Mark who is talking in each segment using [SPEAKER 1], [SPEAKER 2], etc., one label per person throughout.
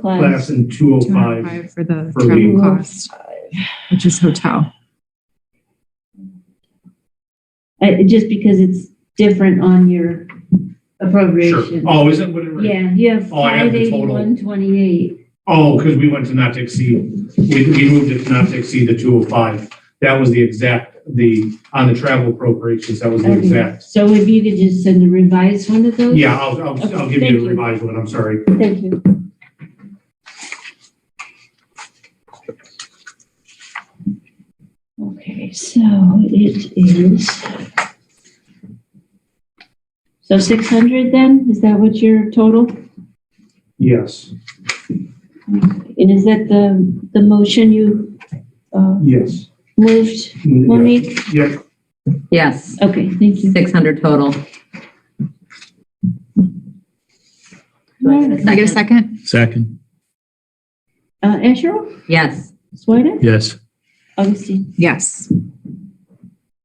[SPEAKER 1] class.
[SPEAKER 2] class and two oh five
[SPEAKER 3] 205 For the
[SPEAKER 2] for
[SPEAKER 3] travel
[SPEAKER 2] me.
[SPEAKER 3] cost, which is hotel.
[SPEAKER 1] I, Uh, just because it's different on your
[SPEAKER 2] Sure.
[SPEAKER 1] appropriation.
[SPEAKER 2] Oh, is it whatever?
[SPEAKER 1] Yeah, you have
[SPEAKER 2] Oh, I have
[SPEAKER 1] five
[SPEAKER 2] the total.
[SPEAKER 1] eighty-one twenty-eight.
[SPEAKER 2] Oh, because we went to not to exceed, we, we moved it to not to exceed the two oh five. That was the exact, the, on the travel appropriations, that was the
[SPEAKER 1] Okay,
[SPEAKER 2] exact.
[SPEAKER 1] so if you could just send a revised one of those?
[SPEAKER 2] Yeah, I'll, I'll, I'll
[SPEAKER 1] Okay,
[SPEAKER 2] give
[SPEAKER 1] thank
[SPEAKER 2] you
[SPEAKER 1] you.
[SPEAKER 2] a revised one, I'm sorry.
[SPEAKER 1] Thank you. Okay, so it is. So six hundred then, is that what your total?
[SPEAKER 2] Yes,
[SPEAKER 1] And is that the, the motion you, uh,
[SPEAKER 2] yes.
[SPEAKER 1] moved,
[SPEAKER 2] Yeah.
[SPEAKER 1] Monique?
[SPEAKER 2] Yep,
[SPEAKER 4] Yes,
[SPEAKER 1] Okay, thank you.
[SPEAKER 4] 600 total. Do I
[SPEAKER 3] Can I get a second?
[SPEAKER 4] second?
[SPEAKER 5] Second,
[SPEAKER 1] Uh, Asherle,
[SPEAKER 4] Yes.
[SPEAKER 1] Swedek,
[SPEAKER 5] yes.
[SPEAKER 1] Augustine.
[SPEAKER 3] Yes.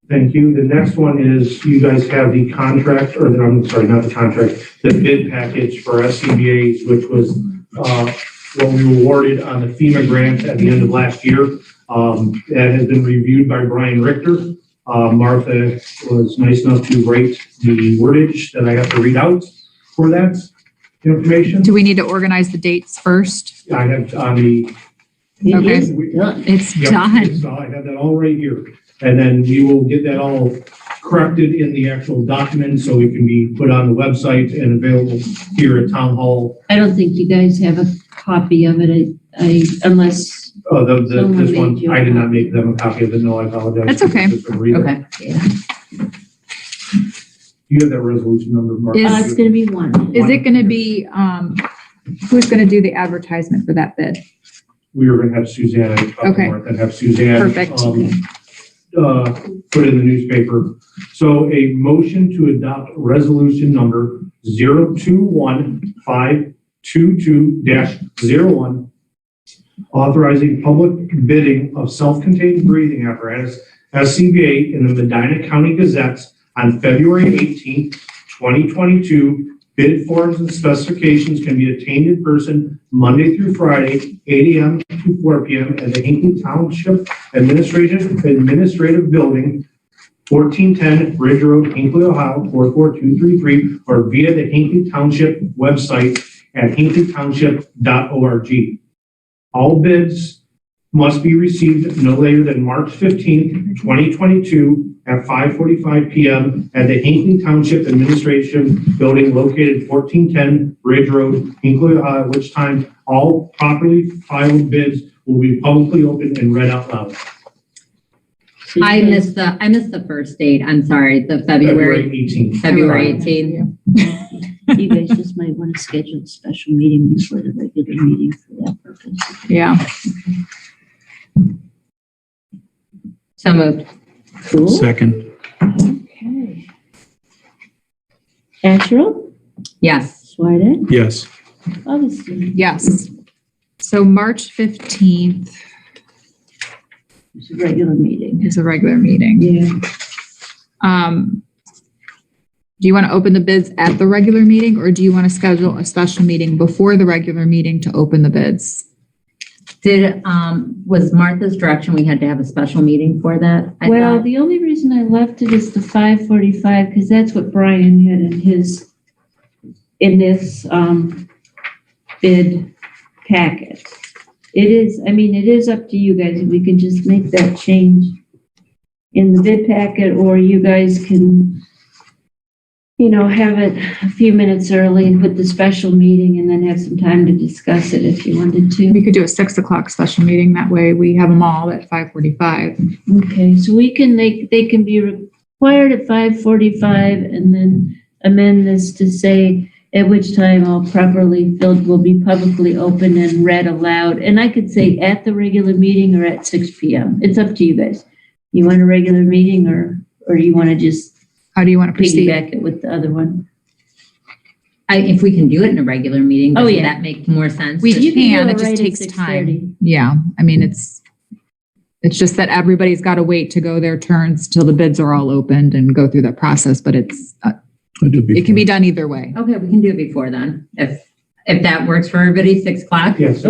[SPEAKER 2] thank you. The next one is, you guys have the contract, or the, I'm sorry, not the contract, the bid package for SCBA's, which was, uh, what we were awarded on the FEMA grant at the end of last year. Um, that has been reviewed by Brian Richter. Uh, Martha was nice enough to write the wordage that I have to read out for that information.
[SPEAKER 3] Do we need to organize the dates first?
[SPEAKER 2] I have on the.
[SPEAKER 1] It
[SPEAKER 3] Okay.
[SPEAKER 1] is done.
[SPEAKER 3] It's
[SPEAKER 2] Yep,
[SPEAKER 3] done.
[SPEAKER 2] So I have that all right here. And then we will get that all corrected in the actual document so it can be put on the website and available here at Town Hall.
[SPEAKER 1] I don't think you guys have a copy of it, I, I, unless,
[SPEAKER 2] Uh, the, the,
[SPEAKER 1] Someone
[SPEAKER 2] this
[SPEAKER 1] made you
[SPEAKER 2] one,
[SPEAKER 1] a
[SPEAKER 2] I did not
[SPEAKER 1] copy.
[SPEAKER 2] make them a copy of it. No, I apologize.
[SPEAKER 3] That's okay.
[SPEAKER 2] Just a reader.
[SPEAKER 4] Okay.
[SPEAKER 2] You have that resolution number, Mark.
[SPEAKER 3] Is-
[SPEAKER 1] uh, it's gonna be one.
[SPEAKER 3] Is it going to be, um, who's going to do the advertisement for that bid?
[SPEAKER 2] We were gonna have Suzanne, I talked to
[SPEAKER 3] Okay.
[SPEAKER 2] Martha, and have Suzanne.
[SPEAKER 3] Perfect.
[SPEAKER 2] um, Uh, put in the newspaper. So a motion to adopt resolution number zero two one five two two dash zero one. Authorizing public bidding of self-contained breathing apparatus, SCBA in the Medina County Gazette on February eighteenth, twenty twenty-two. Bid forms and specifications can be obtained in person Monday through Friday, eight AM to four PM at the Hinkley Township Administrative, Administrative Building, fourteen ten Ridge Road, Hinkley, Ohio, four four two three three, or via the Hinkley Township website at hinkleytownship.org. All bids must be received no later than March fifteenth, twenty twenty-two at five forty-five PM at the Hinkley Township Administration Building located fourteen ten Ridge Road, Hinkley, Ohio, at which time all properly filed bids will be publicly opened and read out loud.
[SPEAKER 1] So you
[SPEAKER 4] I
[SPEAKER 1] guys-
[SPEAKER 4] missed the, I missed the first date. I'm sorry, the February,
[SPEAKER 2] eighteenth.
[SPEAKER 4] February 18th.
[SPEAKER 1] You guys just might want to schedule a special meeting before the regular meeting for that purpose.
[SPEAKER 3] Yeah.
[SPEAKER 4] So moved.
[SPEAKER 1] Cool.
[SPEAKER 5] Second,
[SPEAKER 1] Okay. Asherle,
[SPEAKER 4] Yes.
[SPEAKER 1] Swedek,
[SPEAKER 5] yes.
[SPEAKER 1] Augustine.
[SPEAKER 3] Yes. So March 15th
[SPEAKER 1] It's a regular meeting.
[SPEAKER 3] is a regular meeting.
[SPEAKER 1] Yeah.
[SPEAKER 3] Um, do you want to open the bids at the regular meeting or do you want to schedule a special meeting before the regular meeting to open the bids?
[SPEAKER 4] Did, um, was Martha's direction, we had to have a special meeting for that? I
[SPEAKER 1] Well,
[SPEAKER 4] thought?
[SPEAKER 1] the only reason I left it is the five forty-five, because that's what Brian had in his, in this, um, bid packet. It is, I mean, it is up to you guys, we can just make that change in the bid packet, or you guys can, you know, have it a few minutes early with the special meeting and then have some time to discuss it if you wanted to.
[SPEAKER 3] We could do a six o'clock special meeting. That way we have them all at 5:45.
[SPEAKER 1] Okay, so we can, they, they can be required at five forty-five and then amend this to say at which time all properly filled will be publicly open and read aloud. And I could say at the regular meeting or at six P M. It's up to you guys. You want a regular meeting or, or you want to just
[SPEAKER 3] How do you want to proceed?
[SPEAKER 1] piggyback it with the other one?
[SPEAKER 4] I, if we can do it in a regular meeting,
[SPEAKER 1] Oh,
[SPEAKER 4] doesn't
[SPEAKER 1] yeah.
[SPEAKER 4] that make more sense?
[SPEAKER 3] We
[SPEAKER 4] Just-
[SPEAKER 1] You
[SPEAKER 3] can,
[SPEAKER 1] do
[SPEAKER 3] it just
[SPEAKER 1] right at
[SPEAKER 3] takes time.
[SPEAKER 1] 6:30.
[SPEAKER 3] Yeah, I mean, it's, it's just that everybody's got to wait to go their turns till the bids are all opened and go through that process, but it's, uh,
[SPEAKER 5] I do
[SPEAKER 3] it can be done either way.
[SPEAKER 4] Okay, we can do it before then, if If that works for everybody, six o'clock?
[SPEAKER 2] Yes.